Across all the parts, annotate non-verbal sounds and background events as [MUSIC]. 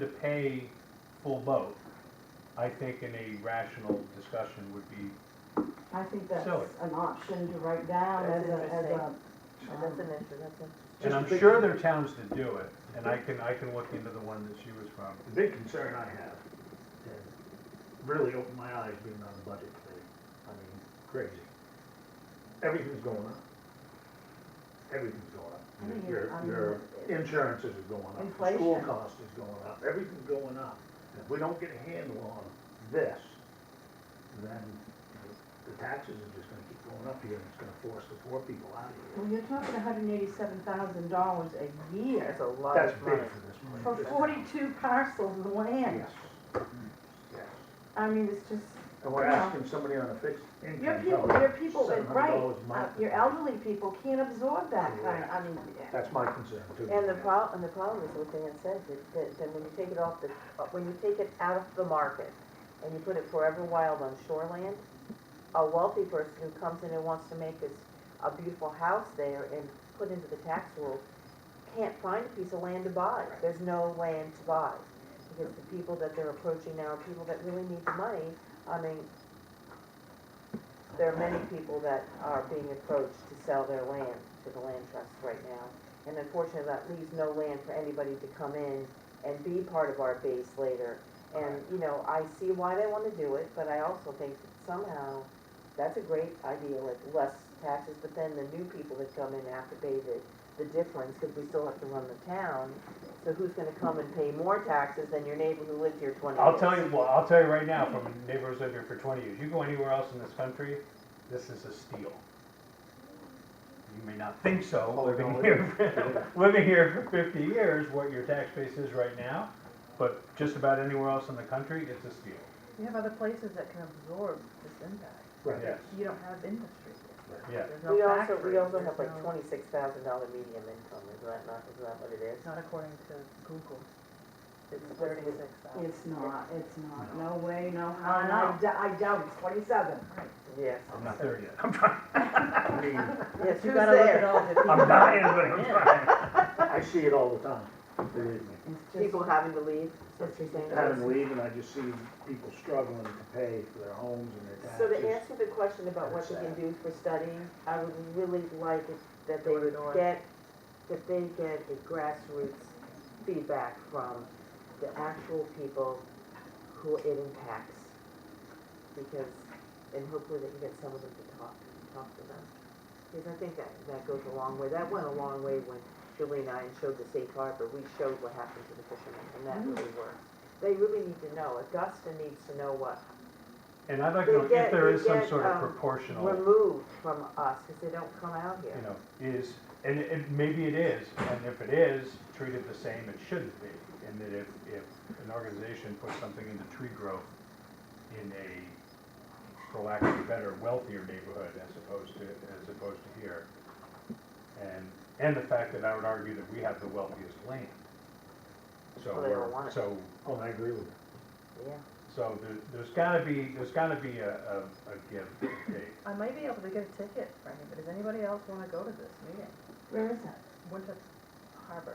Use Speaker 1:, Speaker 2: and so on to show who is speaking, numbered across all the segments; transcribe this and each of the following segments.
Speaker 1: to pay full boat, I think in a rational discussion would be,
Speaker 2: I think that's
Speaker 1: Silly.
Speaker 2: an option to write down as
Speaker 3: That's
Speaker 2: a, as a,
Speaker 3: interesting. That's an
Speaker 2: um,
Speaker 3: issue, that's a,
Speaker 1: and
Speaker 4: Just
Speaker 1: I'm
Speaker 4: think-
Speaker 1: sure there are towns that do it, and I can, I can look into the one that she was from.
Speaker 4: The big concern I have, and really opened my eyes being on the budget committee, I mean, crazy. Everything's going up. Everything's going up.
Speaker 2: I mean,
Speaker 4: Your,
Speaker 2: I mean,
Speaker 4: your insurances are going up. your School
Speaker 2: Inflation.
Speaker 4: cost is going up, everything's going up. And If we don't get a handle on this, then the taxes are just gonna keep going up here and it's gonna force the poor people out of
Speaker 2: well,
Speaker 4: here.
Speaker 2: you're talking hundred and eighty-seven thousand dollars a year
Speaker 3: that's a lot
Speaker 4: That's
Speaker 3: of
Speaker 4: big
Speaker 3: money.
Speaker 4: for this money.
Speaker 2: for forty-two parcels of land.
Speaker 4: Yes. Yes.
Speaker 2: I mean, it's just,
Speaker 4: And we're
Speaker 2: Yeah.
Speaker 4: asking somebody on a fixed income.
Speaker 2: your people,
Speaker 4: probably
Speaker 2: your people, that- right,
Speaker 4: $700 a
Speaker 2: uh,
Speaker 4: month.
Speaker 2: your elderly people can't absorb that kind,
Speaker 4: Correct.
Speaker 2: I mean,
Speaker 4: That's my concern too.
Speaker 3: And the prob, and the problem is with the incentive, that, then when you take it off the, uh, when you take it out of the market and you put it forever wild on shoreland, a wealthy person who comes in and wants to make this, a beautiful house there and put into the tax rule, can't find a piece of land to buy. There's no land to buy. Because the people that they're approaching now are people that really need the money. I mean, there are many people that are being approached to sell their land to the land trust right now. And unfortunately, that leaves no land for anybody to come in and be part of our base later. And, you know, I see why they wanna do it, but I also think that somehow, that's a great idea, like less taxes, but then the new people that come in have to pay the, the difference, cause we still have to run the town. So who's gonna come and pay more taxes than your neighbor who lived here twenty years?
Speaker 1: I'll tell you, well, I'll tell you right now, from a neighbor who's lived here for twenty years, you go anywhere else in this country, this is a steal. You may not think so,
Speaker 4: Oh,
Speaker 1: living
Speaker 4: no, it
Speaker 1: here, [LAUGHS] living here for fifty years, what your tax base is right now, but just about anywhere else in the country, it's a steal.
Speaker 5: You have other places that can absorb this impact.
Speaker 4: [LAUGHS] Right.
Speaker 1: Yes,
Speaker 5: You don't have industry here.
Speaker 1: yeah.
Speaker 5: There's no
Speaker 3: We also,
Speaker 5: factories,
Speaker 3: we also
Speaker 5: there's
Speaker 3: have like
Speaker 5: no-
Speaker 3: twenty-six thousand dollar medium income, is that not, is that what it is?
Speaker 5: Not according to Google. It's
Speaker 3: What's it?
Speaker 5: thirty-six thousand.
Speaker 2: it's not, it's not, no way, no
Speaker 5: I
Speaker 2: how, and I
Speaker 5: know.
Speaker 2: dou- I doubt it's twenty-seven.
Speaker 3: Yes.
Speaker 1: I'm not there
Speaker 4: [LAUGHS]
Speaker 1: yet. I'm trying.
Speaker 4: I mean,
Speaker 3: Yes, who's
Speaker 5: You gotta look at
Speaker 3: there?
Speaker 5: all the
Speaker 3: [LAUGHS]
Speaker 5: people.
Speaker 1: I'm dying, but I'm
Speaker 5: Yeah.
Speaker 1: trying.
Speaker 4: I see it all the time, believe me.
Speaker 2: It's just,
Speaker 3: People having to leave, so
Speaker 2: That's
Speaker 3: you're saying.
Speaker 4: Having to leave and I just see people struggling to pay for their homes and their
Speaker 3: So to
Speaker 4: taxes.
Speaker 3: answer the question about what
Speaker 4: That's
Speaker 3: you can
Speaker 4: sad.
Speaker 3: do for studying, I would really like it that they would
Speaker 5: Door to door.
Speaker 3: get, that they get a grassroots feedback from the actual people who it impacts. Because, and hopefully they can get some of them to talk, talk to them. Because I think that, that goes a long way. That went a long way when Julie and I showed the safe harbor. We showed what happened to the fishermen and that really worked. They really need to know. Augusta needs to know what
Speaker 1: And I'd like to know if
Speaker 3: They get-
Speaker 1: there
Speaker 3: they
Speaker 1: is some
Speaker 3: get,
Speaker 1: sort of
Speaker 3: um,
Speaker 1: proportional.
Speaker 3: removed from us because they don't come out
Speaker 1: you
Speaker 3: here.
Speaker 1: know, is, and it, and maybe it is, and if it is, treat it the same it shouldn't be. And that if, if an organization puts something into tree growth in a, for lack of a better, wealthier neighborhood as opposed to, as opposed to here. And, and the fact that I would argue that we have the wealthiest land. So,
Speaker 3: Well, they don't
Speaker 1: we're-
Speaker 3: want it.
Speaker 1: so,
Speaker 4: Oh, I agree with you.
Speaker 3: Yeah.
Speaker 1: so there, there's gotta be, there's gotta be a, a, a give and take.
Speaker 5: I might be able to get a ticket, Franny, but does anybody else wanna go to this meeting?
Speaker 2: where is that?
Speaker 5: Winter Harbor.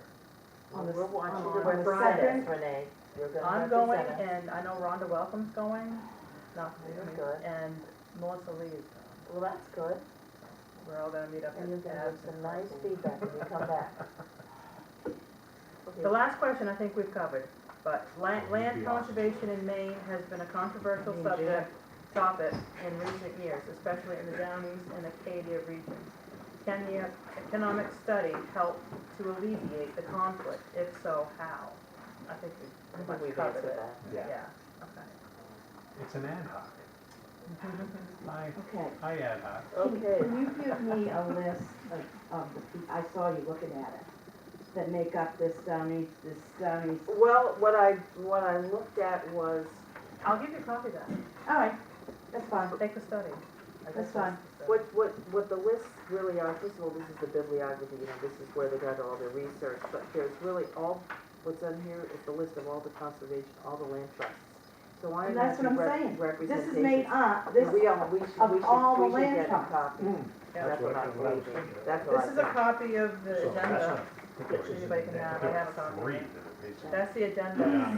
Speaker 2: On the s-
Speaker 3: We're watching
Speaker 2: on
Speaker 3: the
Speaker 2: the
Speaker 3: website,
Speaker 2: second?
Speaker 3: Renee. You're gonna
Speaker 5: I'm going
Speaker 3: represent us.
Speaker 5: and I know Rhonda Welcome's going, not me,
Speaker 3: You're good.
Speaker 5: and Melissa Lee is going.
Speaker 3: Well, that's good.
Speaker 5: We're all gonna meet up at
Speaker 3: And you're gonna have
Speaker 5: Ab's
Speaker 3: some
Speaker 5: and
Speaker 3: nice
Speaker 5: Michael's.
Speaker 3: feedback when you come [LAUGHS] back. Okay.
Speaker 5: The last question I think we've covered, but land,
Speaker 4: Well, you'd
Speaker 5: land
Speaker 4: be awesome.
Speaker 5: conservation in Maine has been a controversial
Speaker 2: Maine,
Speaker 5: subject, topic in recent years, especially in the Down East and Acadia regions. Can the economic study help to alleviate the conflict? If so, how? I think
Speaker 3: I
Speaker 5: we've
Speaker 3: think
Speaker 5: pretty much
Speaker 3: we've
Speaker 5: covered
Speaker 3: answered
Speaker 5: it.
Speaker 3: that.
Speaker 4: Yeah.
Speaker 5: Yeah, okay.
Speaker 1: It's an ad hoc. I,
Speaker 2: Okay.
Speaker 1: I ad hoc.
Speaker 2: Can-
Speaker 3: Okay.
Speaker 2: Can you give me a list of, of the, pe- I saw you looking at it, that make up this Down East, this Down East,
Speaker 3: Well, what I, what I looked at was,
Speaker 5: I'll give you a copy of that.
Speaker 2: all right, that's fine.
Speaker 5: Take the study. I guess
Speaker 2: That's fine.
Speaker 5: the study.
Speaker 3: what, what, what the lists really are, first of all, this is the bibliography, you know, this is where they got all their research, but there's really all, what's on here is the list of all the conservation, all the land trusts. So I am
Speaker 2: And that's
Speaker 3: asking
Speaker 2: what I'm
Speaker 3: rep-
Speaker 2: saying. This
Speaker 3: representation.
Speaker 2: is made up, this,
Speaker 3: We all, we should,
Speaker 2: of
Speaker 3: we
Speaker 2: all the
Speaker 3: should, we should
Speaker 2: land
Speaker 3: get a
Speaker 2: trusts.
Speaker 3: copy.
Speaker 4: Hmm.
Speaker 5: Yeah.
Speaker 3: That's what
Speaker 4: That's
Speaker 3: I'm
Speaker 4: what I was
Speaker 3: thinking,
Speaker 4: thinking.
Speaker 3: that's what I'm
Speaker 5: This is a
Speaker 3: thinking.
Speaker 5: copy of the
Speaker 4: So that's
Speaker 5: agenda.
Speaker 4: not- I think it was
Speaker 5: Anybody can
Speaker 4: in
Speaker 5: have
Speaker 4: there.
Speaker 5: it. have a copy.
Speaker 1: Three that are basically-
Speaker 5: That's the agenda.